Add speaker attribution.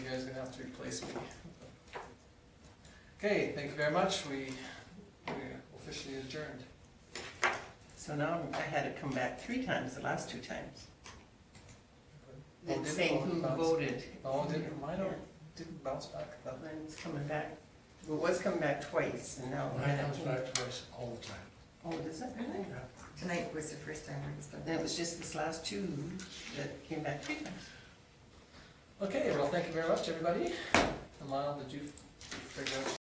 Speaker 1: guys are gonna have to replace me. Okay, thank you very much, we we officially adjourned.
Speaker 2: So now I had to come back three times, the last two times,
Speaker 1: Oh,
Speaker 2: and
Speaker 1: did-
Speaker 2: say
Speaker 1: oh,
Speaker 2: who
Speaker 1: bounce-
Speaker 2: voted.
Speaker 1: Oh, didn't, mine don't- didn't bounce back, that,
Speaker 2: Mine was coming back, well, it was coming back twice, and now.
Speaker 3: Mine comes back to us all the time.
Speaker 2: Oh, does it really?
Speaker 3: Yeah.
Speaker 4: Tonight was the first time I was done.
Speaker 2: And it was just this last two that came back three times.
Speaker 1: okay, well, thank you very much, everybody. And Lyle, did you figure out